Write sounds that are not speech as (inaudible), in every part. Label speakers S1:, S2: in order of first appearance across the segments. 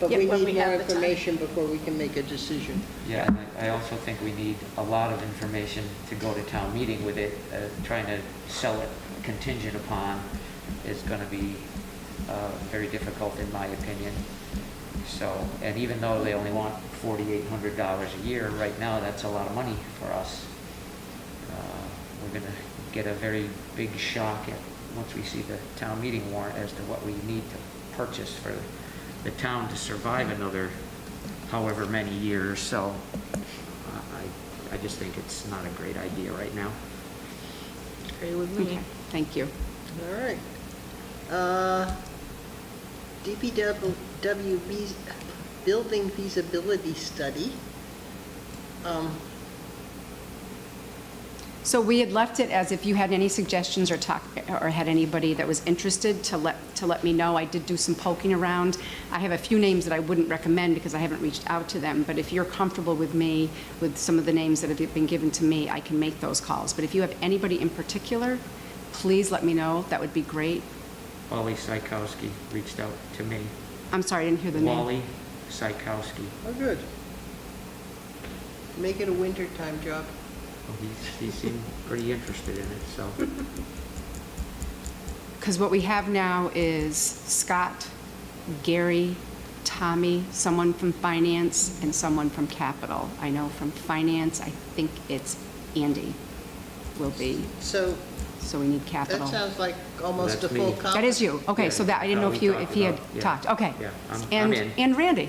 S1: But
S2: Yep,
S1: we
S2: when we
S1: need more
S2: have the time.
S1: information before we can make a decision.
S3: Yeah, and I- I also think we need a lot of information to go to town meeting with it. Uh, Trying to sell it contingent upon is going to be uh, very difficult, in my opinion. So, and even though they only want $4,800 a year, right now, that's a lot of money for us. Uh, We're going to get a very big shock at, once we see the town meeting warrant as to what we need to purchase for the town to survive another however many years, so uh, I, I just think it's not a great idea right now.
S2: Agree with
S4: Okay,
S2: me.
S4: thank you.
S1: All right. Uh, DPW feas- building feasibility study. Um,
S4: So we had left it as if you had any suggestions or talk, or had anybody that was interested to let, to let me know. I did do some poking around. I have a few names that I wouldn't recommend because I haven't reached out to them, but if you're comfortable with me, with some of the names that have been given to me, I can make those calls. But if you have anybody in particular, please let me know. That would be great.
S3: Wally Psychowski reached out to me.
S4: I'm sorry, I didn't hear the name.
S3: Wally Psychowski.
S1: Oh, good. Make it a wintertime job.
S3: He, he seemed pretty interested in it, so.
S4: Because what we have now is Scott, Gary, Tommy, someone from finance, and someone from capital. I know from finance, I think it's Andy will be,
S1: So
S4: so we need
S1: that
S4: capital.
S1: sounds like almost a
S3: That's
S1: full
S3: me.
S1: complement.
S4: That is you, okay, so that, I didn't know if you, if he had talked, okay.
S3: Yeah, I'm- I'm
S4: And,
S3: in.
S4: and Randy.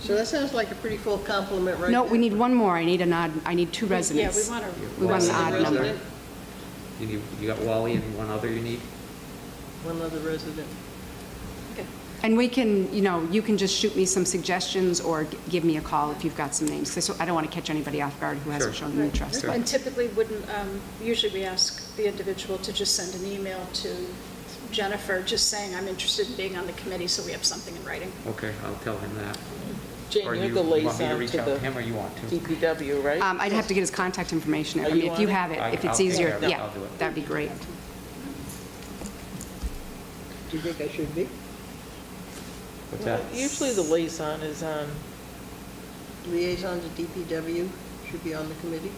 S1: So that sounds like a pretty full complement right
S4: No,
S1: there.
S4: we need one more, I need an odd, I need two residents.
S2: Yeah, we want to.
S4: We want an
S1: One
S4: odd
S1: other
S4: number.
S1: resident.
S3: You, need- you got Wally and one other you need?
S1: One other resident.
S4: And we can, you know, you can just shoot me some suggestions or g- give me a call if you've got some names. So I don't want to catch anybody off guard who hasn't
S3: Sure.
S4: shown any interest.
S3: Sure.
S4: but-
S2: And typically wouldn't, um, usually we ask the individual to just send an email to Jennifer, just saying, I'm interested in being on the committee, so we have something in writing.
S3: Okay, I'll tell him that.
S5: Jane,
S3: Or
S5: you're
S3: you
S5: the
S3: want me to
S5: liaison
S3: reach
S5: to
S3: out to him, or you want to?
S5: the DPW, right?
S4: Um, I'd have to get his contact information. I
S5: Are
S4: mean,
S5: you
S4: If you
S5: on it?
S4: have it,
S3: I-
S4: if
S3: I'll
S4: it's
S3: take
S4: easier,
S3: care of it.
S4: yeah,
S3: I'll do it.
S4: that'd be great.
S1: Do you think I should be?
S3: What's
S5: Well,
S3: that?
S5: Usually the liaison is um, on,
S1: Liaison to DPW should be on the committee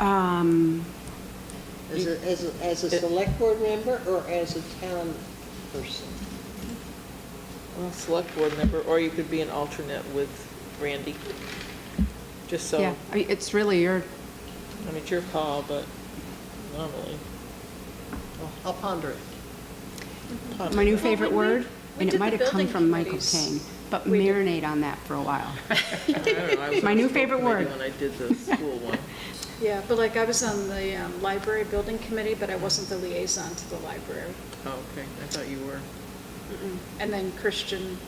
S4: Um,
S1: as a, as a, as a select board member or as a town person?
S5: well, select board member, or you could be an alternate with Randy. Just so,
S4: yeah, I mean, it's really your,
S5: I mean, it's your call, but (laughs) normally.
S1: I'll ponder it.
S4: my new
S2: Well, when
S4: favorite
S2: we-
S4: word,
S2: we did
S4: and it
S2: the
S4: might have come
S2: building
S4: from Michael Caine,
S2: committees.
S4: but
S2: We did-
S4: marinate on that for a
S5: (laughs)
S4: while.
S5: My
S4: My new favorite word.
S5: When I did the school one. (laughs)
S2: Yeah, but like I was on the um, library building committee, but I wasn't the liaison to the library.
S5: Oh, okay, I thought you were.
S2: Mm-mm. And then Christian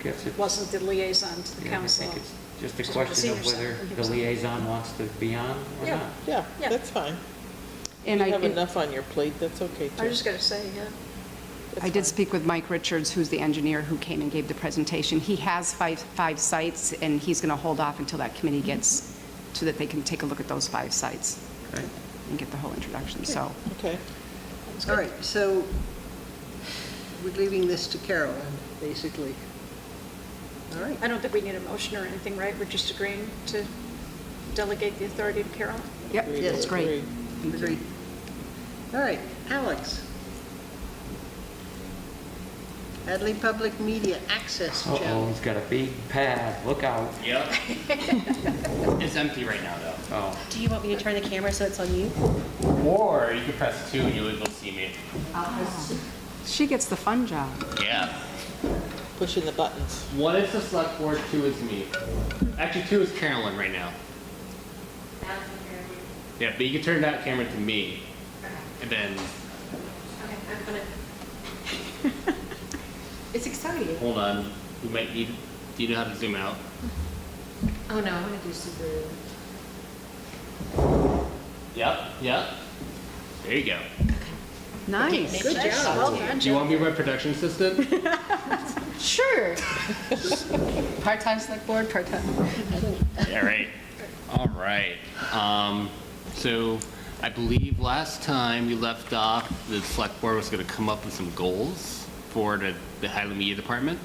S3: I guess it's-
S2: wasn't the liaison um, to the
S3: yeah, I
S2: council.
S3: think it's Just a
S2: Just
S3: question
S2: senior
S3: of whether
S2: center.
S3: the liaison wants to be on or
S2: Yeah.
S3: not.
S5: Yeah,
S2: Yeah.
S5: that's fine. You
S4: And I,
S5: have
S4: and
S5: enough on your plate, that's okay,
S2: I
S5: too.
S2: was just gonna say, yeah.
S5: That's
S4: I did
S5: fine.
S4: speak with Mike Richards, who's the engineer who came and gave the presentation. He has five, five sites, and he's going to hold off until that committee gets, so that they can take a look at those five sites
S3: Okay.
S4: and get the whole introduction, so.
S5: Okay.
S2: That's
S1: All
S2: good.
S1: right, so we're leaving this to Carolyn, basically. All right,
S2: I don't think we need a motion or anything, right? We're just agreeing to delegate the authority to Carol?
S4: Yep,
S5: Agreed,
S4: that's great.
S5: agreed.
S4: Thank you.
S1: agreed. All right, Alex. Hadley Public Media Access
S3: Uh-oh,
S1: Challenge.
S3: he's got a big pad, look out.
S6: Yep. it's empty right now, though.
S3: Oh,
S7: Do you want me to turn the camera so it's on you?
S6: Or you could press two and you would see me.
S4: She gets the fun job.
S6: Yeah.
S5: Pushing the buttons.
S6: One is the select board, two is me. Actually, two is Carolyn right now. Yeah, but you can turn that camera to me. And then,
S7: Okay, I'm gonna. (laughs) It's exciting.
S6: hold on, we might need, do you know how to zoom out?
S7: Oh no, I'm gonna do super.
S6: Yep, yep. There you go.
S4: Nice.
S7: Good job.
S2: Well done,
S6: Do you want me to be my production assistant?
S4: (laughs)
S7: Sure. Part-time select board, part-time.
S6: (laughs) Yeah, right. All right. Um, so I believe last time we left off, the select board was going to come up with some goals for the, the Highland Media Department.